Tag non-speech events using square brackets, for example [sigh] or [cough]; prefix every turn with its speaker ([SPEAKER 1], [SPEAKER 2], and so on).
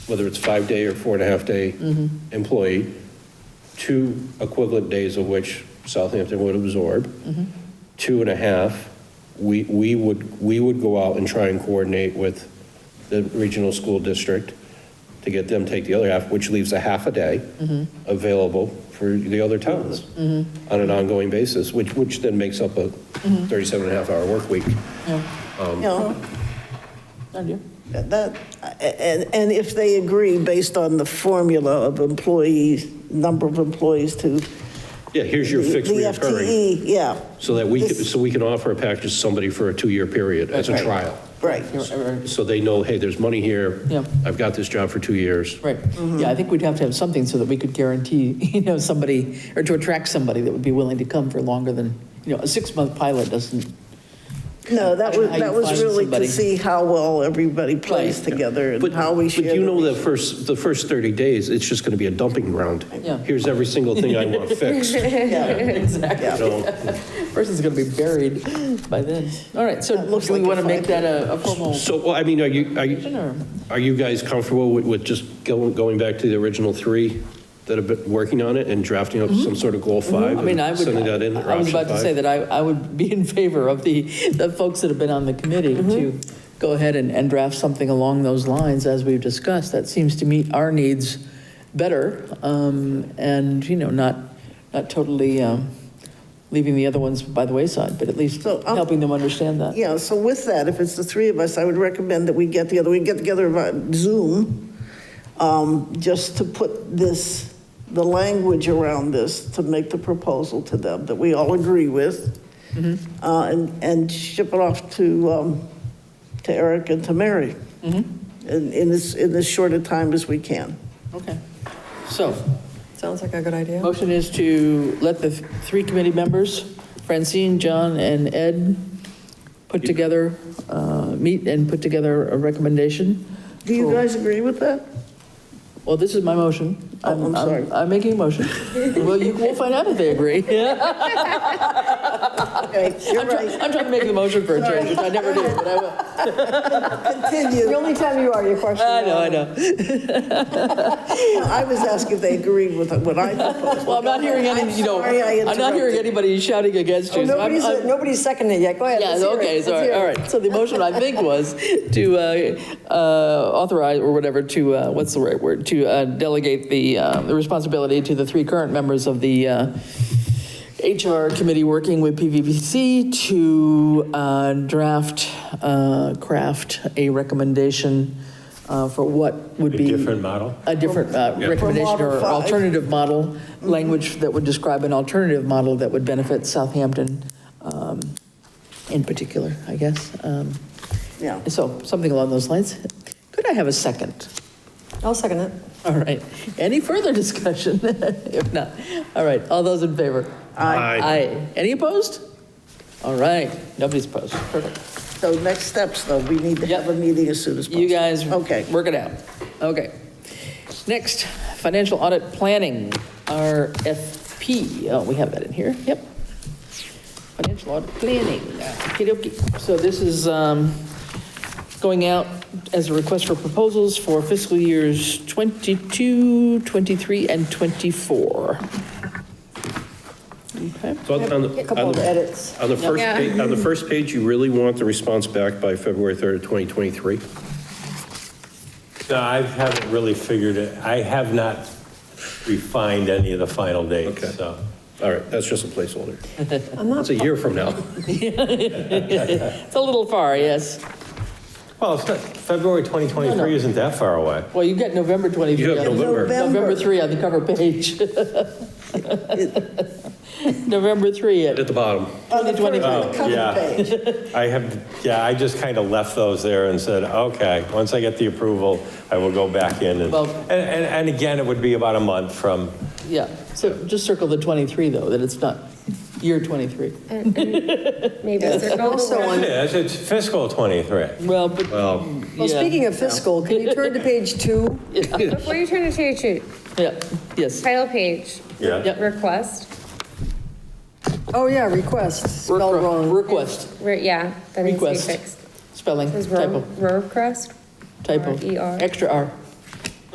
[SPEAKER 1] whether it's five-day or four-and-a-half-day employee, two equivalent days of which Southampton would absorb, two and a half, we, we would, we would go out and try and coordinate with the regional school district to get them to take the other half, which leaves a half a day available for the other towns on an ongoing basis, which, which then makes up a 37 and a half hour work week.
[SPEAKER 2] You know, that, and, and if they agree based on the formula of employees, number of employees to.
[SPEAKER 1] Yeah, here's your fixed
[SPEAKER 2] the E
[SPEAKER 1] reoccurring,
[SPEAKER 2] FTE, Yeah,
[SPEAKER 1] so that we, could-
[SPEAKER 2] This-
[SPEAKER 1] so we can offer a package to somebody for a two-year period as a
[SPEAKER 3] Right.
[SPEAKER 1] trial.
[SPEAKER 2] right.
[SPEAKER 1] So they know, hey, there's money here.
[SPEAKER 3] Yeah.
[SPEAKER 1] I've got this job for two years.
[SPEAKER 3] Right, yeah, I think we'd have to have something so that we could guarantee, [laughs] you know, somebody, or to attract somebody that would be willing to come for longer than, you know, a six-month pilot doesn't,
[SPEAKER 2] No, that was,
[SPEAKER 3] How you
[SPEAKER 2] that was
[SPEAKER 3] find
[SPEAKER 2] really to
[SPEAKER 3] somebody.
[SPEAKER 2] see how well everybody plays
[SPEAKER 3] Right.
[SPEAKER 2] together and
[SPEAKER 1] But-
[SPEAKER 2] how we share.
[SPEAKER 1] But you
[SPEAKER 2] the-
[SPEAKER 1] know the first, the first 30 days, it's just going to be a dumping ground.
[SPEAKER 3] Yeah.
[SPEAKER 1] Here's every single thing I want
[SPEAKER 2] [laughs]
[SPEAKER 3] [laughs]
[SPEAKER 1] fixed. you
[SPEAKER 2] Yeah,
[SPEAKER 3] exactly,
[SPEAKER 1] know.
[SPEAKER 3] [laughs] person's gonna be buried by then. All right, so
[SPEAKER 2] That looks
[SPEAKER 3] do Uh, we
[SPEAKER 2] like a
[SPEAKER 3] want to make
[SPEAKER 2] five-year-
[SPEAKER 3] that a a formal
[SPEAKER 1] So, well, I mean, are you, are
[SPEAKER 3] motion,
[SPEAKER 1] you,
[SPEAKER 3] or?
[SPEAKER 1] are you guys comfortable with, with just going, going back to the original three that have been working on it and drafting up some sort of goal five?
[SPEAKER 3] Mm-hmm. I mean, I
[SPEAKER 1] and
[SPEAKER 3] would,
[SPEAKER 1] Sending that in, or
[SPEAKER 3] I was
[SPEAKER 1] option
[SPEAKER 3] about to
[SPEAKER 1] five?
[SPEAKER 3] say that I, I would be in favor of the, the folks that have been on the committee to go ahead and, and draft something along those lines as we've discussed. That seems to meet our needs better, um, and, you know, not, not totally, um, leaving the other ones by the wayside, but at least
[SPEAKER 2] So, I'll-
[SPEAKER 3] helping them understand that.
[SPEAKER 2] Yeah, so with that, if it's the three of us, I would recommend that we get together, we get together via Zoom, um, just to put this, the language around this, to make the proposal to them that we all agree with, uh, and, and ship it off to, um, to Eric and to Mary. In, in as, in as short a time as we can.
[SPEAKER 3] Okay. So,
[SPEAKER 4] Sounds like a good
[SPEAKER 3] [laughs]
[SPEAKER 4] idea.
[SPEAKER 3] motion is to let the th- three committee members, Francine, John, and Ed, put together, uh, meet and put together a recommendation.
[SPEAKER 2] Do you
[SPEAKER 3] for-
[SPEAKER 2] guys agree with that?
[SPEAKER 3] Well, this is my motion.
[SPEAKER 2] Oh, I'm sorry.
[SPEAKER 3] I'm making a motion. Well, you, we'll find out if they agree. I'm
[SPEAKER 2] Okay, you're
[SPEAKER 3] try-
[SPEAKER 2] right.
[SPEAKER 3] I'm trying to make the motion for a change, which I never do, but I will.
[SPEAKER 4] The
[SPEAKER 2] Continue.
[SPEAKER 4] only time you are, your question.
[SPEAKER 3] I know, I know.
[SPEAKER 2] I was asking if they agreed with what I proposed.
[SPEAKER 3] [laughs] Well, I'm not hearing any, you know,
[SPEAKER 2] sorry I
[SPEAKER 3] I'm not hearing
[SPEAKER 2] interrupted.
[SPEAKER 3] anybody shouting against
[SPEAKER 4] Oh,
[SPEAKER 3] you. so I'm-
[SPEAKER 4] Nobody's,
[SPEAKER 3] I'm-
[SPEAKER 4] nobody's seconding it yet. Go ahead.
[SPEAKER 3] Yeah,
[SPEAKER 4] let's hear it,
[SPEAKER 3] okay,
[SPEAKER 4] let's
[SPEAKER 3] so,
[SPEAKER 4] hear it.
[SPEAKER 3] all right. So the motion, I think, was to uh, uh, authorize, or whatever, to, uh, what's the right word? To uh, delegate the uh, the responsibility to the three current members of the uh, HR committee working with PVPC to uh, draft, uh, craft a recommendation uh, for what would
[SPEAKER 5] A
[SPEAKER 3] be.
[SPEAKER 5] different model?
[SPEAKER 3] A different uh,
[SPEAKER 2] For
[SPEAKER 3] recommendation or
[SPEAKER 2] model five.
[SPEAKER 3] alternative model, language that would describe an alternative model that would benefit Southampton um, in particular, I guess. Um,
[SPEAKER 2] Yeah.
[SPEAKER 3] So something along those lines. Could I have a second?
[SPEAKER 4] I'll second it.
[SPEAKER 3] All right. Any further discussion? [laughs] If not, all right. All those in favor?
[SPEAKER 1] Aye.
[SPEAKER 3] Aye. Any opposed? All right. Nobody's opposed. Perfect.
[SPEAKER 2] So next steps, though, we need to have a
[SPEAKER 3] Yep.
[SPEAKER 2] meeting as soon as possible.
[SPEAKER 3] You guys.
[SPEAKER 2] Okay.
[SPEAKER 3] Work it out. Okay. Next, financial audit planning, RFP. Oh, we have that in here. Yep. Financial audit planning. okey So this is um, going out as a request for proposals for fiscal years 22, 23, and 24. Okay.
[SPEAKER 1] So on- on the-
[SPEAKER 4] A couple
[SPEAKER 1] on
[SPEAKER 4] of
[SPEAKER 1] the-
[SPEAKER 4] edits.
[SPEAKER 1] On the first,
[SPEAKER 6] Yeah.
[SPEAKER 1] pa- on the first page, you really want the response back by February 3rd, 2023?
[SPEAKER 5] No, I haven't really figured it, I have not refined any of the final
[SPEAKER 1] Okay.
[SPEAKER 5] dates, so.
[SPEAKER 1] All right, that's just a placeholder.
[SPEAKER 4] I'm not,
[SPEAKER 1] That's a year
[SPEAKER 4] [laughs]
[SPEAKER 1] from now.
[SPEAKER 3] It's a little far, yes.
[SPEAKER 5] Well, it's not, February 2023 isn't that far away.
[SPEAKER 3] Well, you've got November 23.
[SPEAKER 1] You have
[SPEAKER 3] on the-
[SPEAKER 1] November.
[SPEAKER 3] November
[SPEAKER 2] November.
[SPEAKER 3] 3 on the cover page. [laughs] November 3 at
[SPEAKER 1] At the bottom.
[SPEAKER 2] On the first- on the
[SPEAKER 3] 2025.
[SPEAKER 2] cover
[SPEAKER 5] Yeah.
[SPEAKER 2] page.
[SPEAKER 5] I have, yeah, I just kind of left those there and said, okay, once I get the approval, I will go back in. And,
[SPEAKER 3] Well-
[SPEAKER 5] and, and and again, it would be about a month from,
[SPEAKER 3] Yeah, so just circle the 23, though, that it's not year 23.
[SPEAKER 6] Maybe circle the
[SPEAKER 4] also
[SPEAKER 6] one.
[SPEAKER 5] it is, it's fiscal 23.
[SPEAKER 3] Well, but,
[SPEAKER 1] Well,
[SPEAKER 3] yeah,
[SPEAKER 4] well, speaking of fiscal, can you turn to
[SPEAKER 3] [laughs]
[SPEAKER 4] page two?
[SPEAKER 6] Before you turn to page two,
[SPEAKER 3] yeah, yes.
[SPEAKER 6] title page,
[SPEAKER 3] Yep.
[SPEAKER 6] request,
[SPEAKER 4] Oh, yeah, request, spelled
[SPEAKER 3] Requ-
[SPEAKER 4] wrong.
[SPEAKER 3] Request,
[SPEAKER 6] Re- yeah, that needs to be
[SPEAKER 3] Request.
[SPEAKER 6] fixed.
[SPEAKER 3] spelling,
[SPEAKER 6] It says
[SPEAKER 3] typo,
[SPEAKER 6] ro- request,
[SPEAKER 3] typo.
[SPEAKER 6] R E R.
[SPEAKER 3] Extra R.